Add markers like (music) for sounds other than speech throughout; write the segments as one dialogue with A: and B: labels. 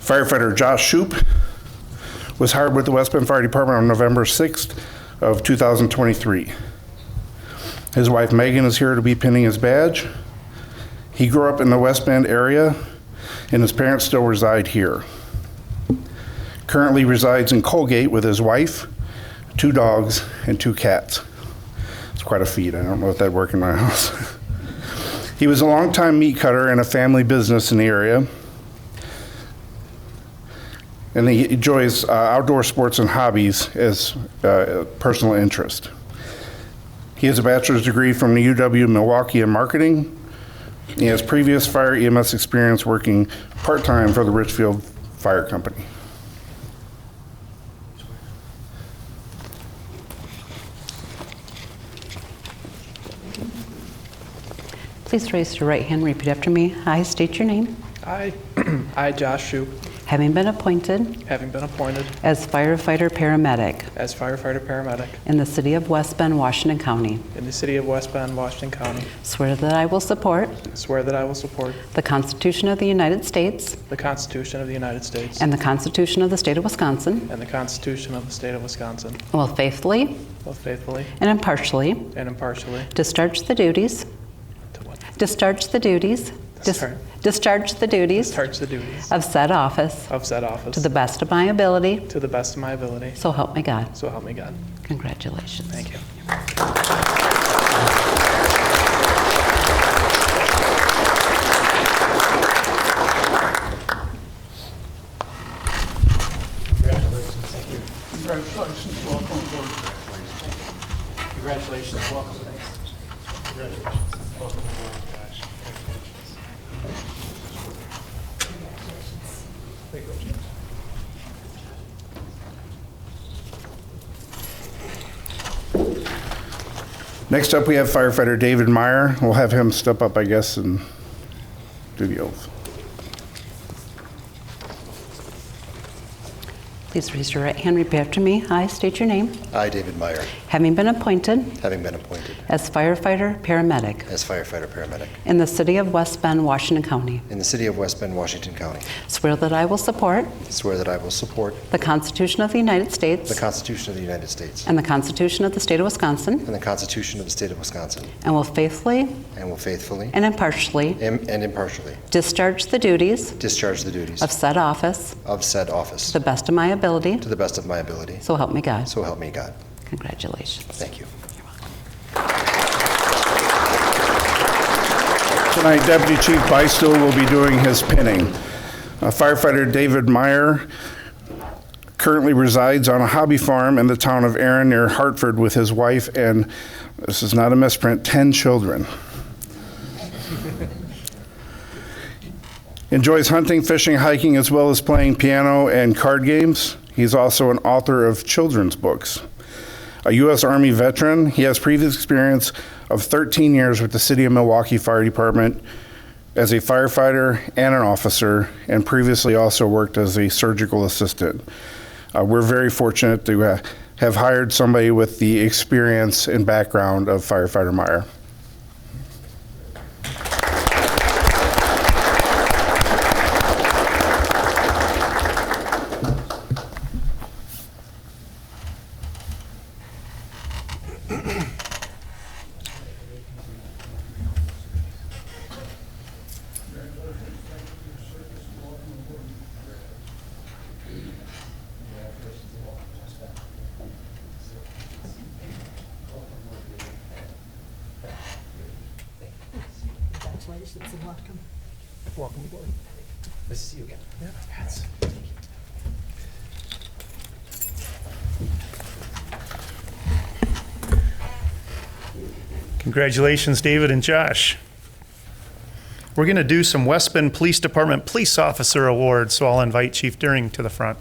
A: Firefighter Josh Shoup was hired with the West Bend Fire Department on November 6th of 2023. His wife Megan is here to be pinning his badge. He grew up in the West Bend area, and his parents still reside here. Currently resides in Colgate with his wife, two dogs, and two cats. It's quite a feat. I don't know if that'd work in my (laughs) house. he was a longtime meat cutter and a family business in the area. And he enjoys uh, outdoor sports and hobbies as uh, a personal interest. He has a bachelor's degree from the UW Milwaukee in marketing. He has previous fire EMS experience working part time for the Richfield Fire Company.
B: Please raise your right hand and repeat after me. I state your name.
C: I, (clears throat) I, Josh Shoup,
B: Having been appointed
C: having been appointed
B: as firefighter/paramedic
C: as firefighter/paramedic
B: in the city of West Bend, Washington County,
C: in the city of West Bend, Washington County,
B: swear that I will support
C: swear that I will support
B: the Constitution of the United States
C: the Constitution of the United States
B: and the Constitution of the state of Wisconsin,
C: and the Constitution of the state of Wisconsin,
B: and will faithfully
C: will faithfully
B: and impartially
C: and impartially
B: discharge the duties,
C: to what-
B: discharge the duties, dis-
C: Discharge.
B: discharge the duties
C: discharge the duties
B: of said office
C: of said office
B: to the best of my ability,
C: to the best of my ability,
B: so help me God.
C: so help me God.
B: Congratulations.
C: Thank you.
D: Congratulations, welcome aboard. Congratulations, welcome. Congratulations, welcome aboard, guys.
A: Next up, we have firefighter David Meyer. We'll have him step up, I guess, and do the oath.
B: Please raise your right hand, and repeat after me. I state your name.
E: I, David Meyer,
B: Having been appointed
E: having been appointed
B: as firefighter/paramedic
E: as firefighter/paramedic
B: in the city of West Bend, Washington County,
E: in the city of West Bend, Washington County,
B: swear that I will support
E: swear that I will support
B: the Constitution of the United
E: the
B: States
E: Constitution of the United States
B: and the Constitution of the state of Wisconsin,
E: and the Constitution of the state of Wisconsin,
B: and will faithfully
E: and will faithfully
B: and impartially
E: im- and impartially
B: discharge the duties
E: discharge the duties
B: of said office
E: of said office
B: to the best of my ability,
E: to the best of my ability,
B: so help me God.
E: so help me God.
B: Congratulations.
E: Thank you.
A: Tonight, Deputy Chief Beistel will be doing his pinning. Uh, Firefighter David Meyer currently resides on a hobby farm in the town of Erin near Hartford with his wife and, this is not a misprint, 10 children. (laughs) Enjoys hunting, fishing, hiking, as well as playing piano and card games. He's also an author of children's books. A U.S. Army veteran, he has previous experience of 13 years with the City of Milwaukee Fire Department as a firefighter and an officer, and previously also worked as a surgical assistant. Uh, we're very fortunate to uh, have hired somebody with the experience and background of firefighter Meyer.
F: Congratulations and welcome.
C: Welcome aboard.
E: Nice to see you again.
G: Congratulations, David and Josh. We're going to do some West Bend Police Department Police Officer Awards, so I'll invite Chief Deering to the front.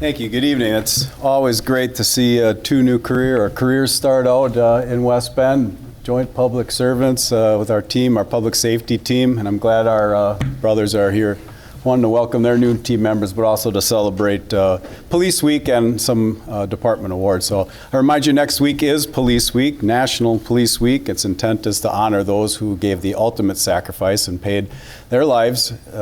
H: Thank you. Good evening. It's always great to see uh, two new career or careers start out uh, in West Bend, joint public servants uh, with our team, our public safety team, and I'm glad our uh, brothers are here. One to welcome their new team members, but also to celebrate uh, Police Week and some uh, department awards. So I remind you, next week is Police Week, National Police Week. Its intent is to honor those who gave the ultimate sacrifice and paid their lives. uh,